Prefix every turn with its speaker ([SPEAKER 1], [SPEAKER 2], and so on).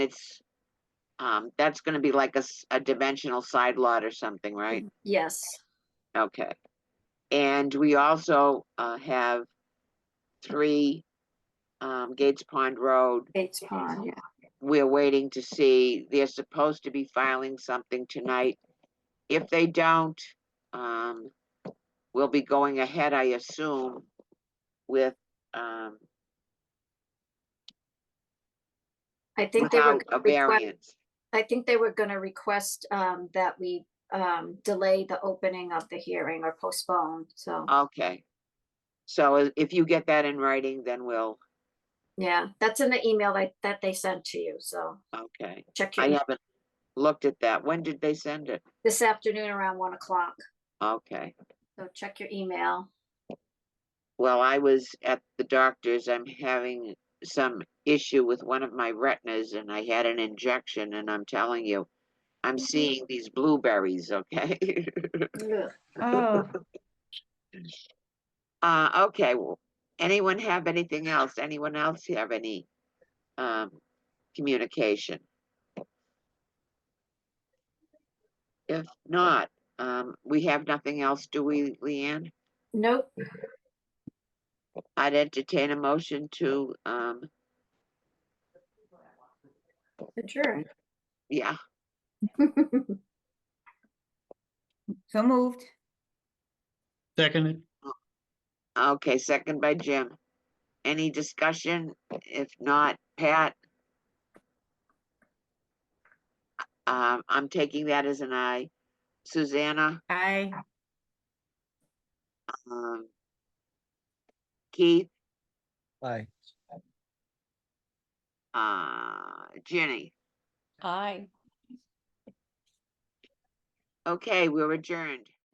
[SPEAKER 1] it's, um, that's gonna be like a, s- a dimensional side lot or something, right?
[SPEAKER 2] Yes,
[SPEAKER 1] Okay. And we also, uh, have three, um, Gates Pond Road.
[SPEAKER 2] Bates Pond, yeah.
[SPEAKER 1] We're waiting to see, they're supposed to be filing something tonight. If they don't, um, we'll be going ahead, I assume, with, um,
[SPEAKER 2] I think they were,
[SPEAKER 1] without a
[SPEAKER 2] gonna request-
[SPEAKER 1] variance.
[SPEAKER 2] I think they were gonna request um that we um delay the opening of the hearing or postpone, so,
[SPEAKER 1] Uh. Okay. So i- if you get that in writing, then we'll,
[SPEAKER 2] yeah, that's in the email that that they sent to you, so
[SPEAKER 1] okay.
[SPEAKER 2] check
[SPEAKER 1] I
[SPEAKER 2] your,
[SPEAKER 1] haven't looked at that. When did they send it?
[SPEAKER 2] this afternoon around one o'clock,
[SPEAKER 1] Okay.
[SPEAKER 2] so check your email.
[SPEAKER 1] Well, I was at the doctor's. I'm having some issue with one of my retinas and I had an injection and I'm telling you, I'm seeing these blueberries, okay?
[SPEAKER 2] Ugh.
[SPEAKER 3] Oh,
[SPEAKER 1] Uh, okay, well, anyone have anything else? Anyone else have any, um, communication? If not, um, we have nothing else, do we, Leanne?
[SPEAKER 2] Nope,
[SPEAKER 1] I'd entertain a motion to, um,
[SPEAKER 2] adjourned.
[SPEAKER 1] yeah,
[SPEAKER 3] so moved.
[SPEAKER 4] Seconded.
[SPEAKER 1] okay, second by Jim. Any discussion? If not, Pat? Um, I'm taking that as an aye. Susanna?
[SPEAKER 3] Aye.
[SPEAKER 1] Um, Keith,
[SPEAKER 4] Aye.
[SPEAKER 1] uh, Jenny.
[SPEAKER 5] Aye.
[SPEAKER 1] Okay, we're adjourned.